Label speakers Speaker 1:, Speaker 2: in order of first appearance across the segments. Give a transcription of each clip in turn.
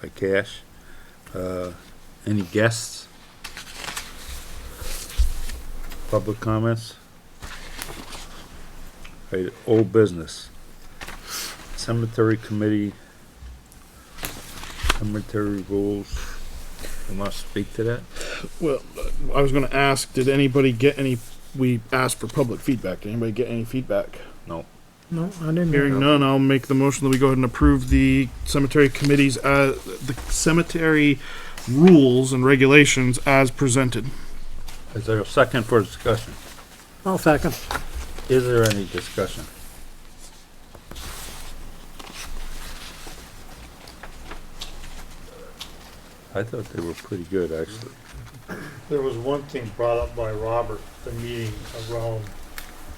Speaker 1: by Cash. Uh, Any guests? Public comments? Right, old business. Cemetery committee. Cemetery rules. You want to speak to that?
Speaker 2: Well, uh, I was gonna ask, did anybody get any, we asked for public feedback, did anybody get any feedback?
Speaker 1: No.
Speaker 3: No, I didn't.
Speaker 2: Hearing none, I'll make the motion that we go ahead and approve the cemetery committees, uh, the cemetery rules and regulations as presented.
Speaker 1: Is there a second for discussion?
Speaker 3: I'll second.
Speaker 1: Is there any discussion? I thought they were pretty good, actually.
Speaker 4: There was one thing brought up by Robert, at the meeting around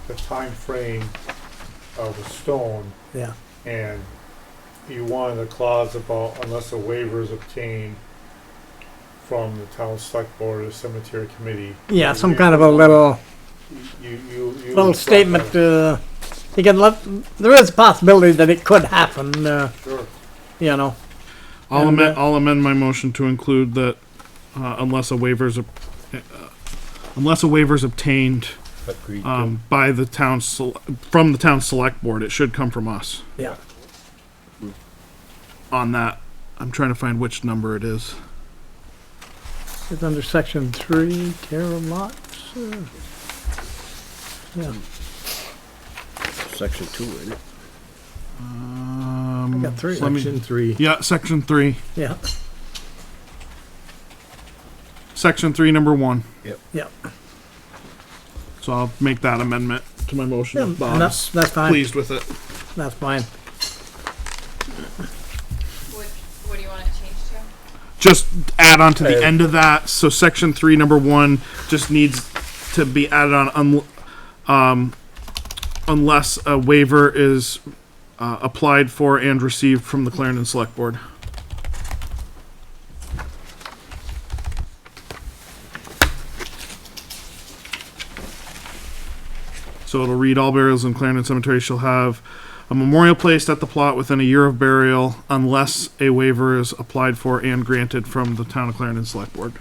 Speaker 4: the time frame of the stone,
Speaker 3: Yeah.
Speaker 4: and you wanted a clause about unless a waiver is obtained from the town select board or cemetery committee.
Speaker 3: Yeah, some kind of a little,
Speaker 4: You, you, you.
Speaker 3: little statement, uh, you can let, there is a possibility that it could happen, uh,
Speaker 4: Sure.
Speaker 3: you know.
Speaker 2: I'll
Speaker 3: And,
Speaker 2: amend,
Speaker 3: uh,
Speaker 2: I'll amend my motion to include that, uh, unless a waiver's, ob- uh, unless a waiver's obtained,
Speaker 1: Agreed to.
Speaker 2: um, by the town, sel- from the town select board, it should come from us.
Speaker 3: Yeah.
Speaker 2: On that, I'm trying to find which number it is.
Speaker 3: It's under section three, care of lots. uh, Yeah,
Speaker 1: uh,
Speaker 5: Section two, isn't it?
Speaker 2: Um,
Speaker 3: I got three.
Speaker 2: let me-
Speaker 5: three.
Speaker 2: Yeah, section three,
Speaker 3: yeah,
Speaker 2: section three, number one.
Speaker 3: yeah.
Speaker 2: So I'll make that amendment to my motion.
Speaker 3: Yeah,
Speaker 2: if Bob's
Speaker 3: that's- that's fine.
Speaker 2: Pleased with it.
Speaker 3: That's fine.
Speaker 6: What, what do you want it changed to?
Speaker 2: Just add on to the
Speaker 1: Okay.
Speaker 2: end of that. So section three, number one, just needs to be added on, un- um, unless a waiver is uh, applied for and received from the Clarendon Select Board. So it'll read all burials in Clarendon Cemetery shall have a memorial placed at the plot within a year of burial unless a waiver is applied for and granted from the town of Clarendon Select Board.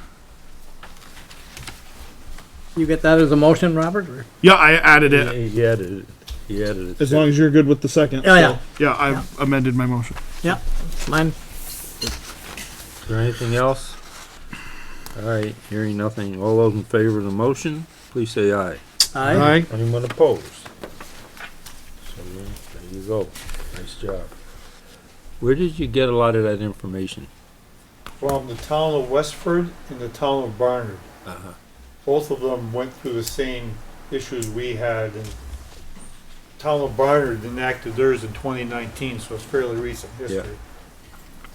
Speaker 3: You get that as a motion, Robert? or-
Speaker 2: Yeah, I added it.
Speaker 1: He he added, it. he added it.
Speaker 2: As long as you're good with the second.
Speaker 3: Yeah, yeah,
Speaker 2: Yeah, I've amended my motion.
Speaker 3: yeah, mine.
Speaker 1: Is there anything else? All right, hearing nothing. All those in favor of the motion, please say aye.
Speaker 3: Aye.
Speaker 1: Anyone opposed? So there you go. Nice job. Where did you get a lot of that information?
Speaker 4: From the town of Westford and the town of Barnard. Both of them went through the same issues we had and town of Barnard enacted theirs in twenty nineteen, so it's fairly recent history.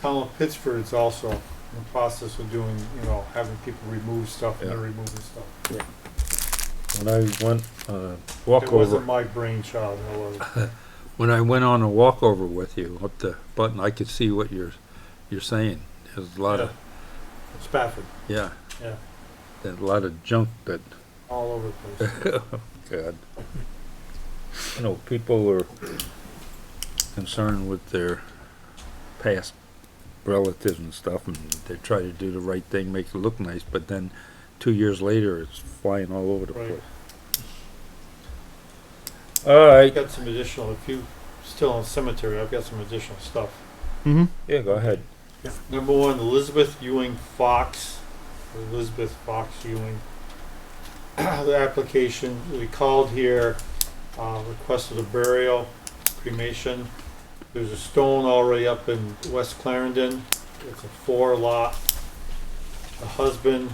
Speaker 4: Town of Pittsford's also in the process of doing, you know, having people remove stuff and they're
Speaker 1: Yeah.
Speaker 4: removing stuff.
Speaker 1: When I went, uh,
Speaker 4: It
Speaker 1: walkover,
Speaker 4: wasn't my brainchild, it was.
Speaker 1: when I went on a walkover with you up the button, I could see what you're, you're saying. There's a lot of,
Speaker 4: Spafford,
Speaker 1: yeah,
Speaker 4: yeah,
Speaker 1: there's a lot of junk that,
Speaker 4: all over the place.
Speaker 1: God. You know, people are concerned with their past relatives and stuff, and they try to do the right thing, make it look nice, but then two years later, it's flying all over the
Speaker 4: Right.
Speaker 1: place. All right,
Speaker 4: I've got some additional, if you, still on cemetery, I've got some additional stuff.
Speaker 2: Mm-hmm.
Speaker 1: yeah, go ahead.
Speaker 4: Number one, Elizabeth Ewing Fox, Elizabeth Fox Ewing. The application, we called here, uh, requested a burial, cremation. There's a stone already up in West Clarendon. It's a four lot. The husband,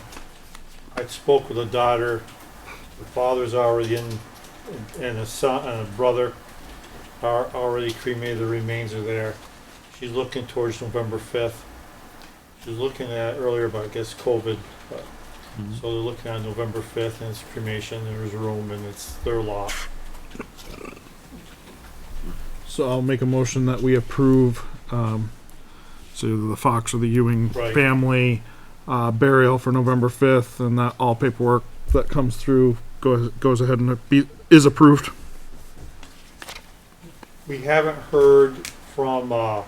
Speaker 4: I spoke with the daughter. The father's already in, and a son, and a brother are already cremated. The remains are there. She's looking towards November fifth. She was looking at earlier about, I guess, COVID. but-
Speaker 1: Mhm.
Speaker 4: So they're looking at November fifth and it's cremation, there's room and it's their lot.
Speaker 2: So I'll make a motion that we approve, um, so the Fox or the Ewing
Speaker 4: Right.
Speaker 2: family, uh, burial for November fifth, and that all paperwork that comes through goes, goes ahead and be, is approved.
Speaker 4: We haven't heard from, uh,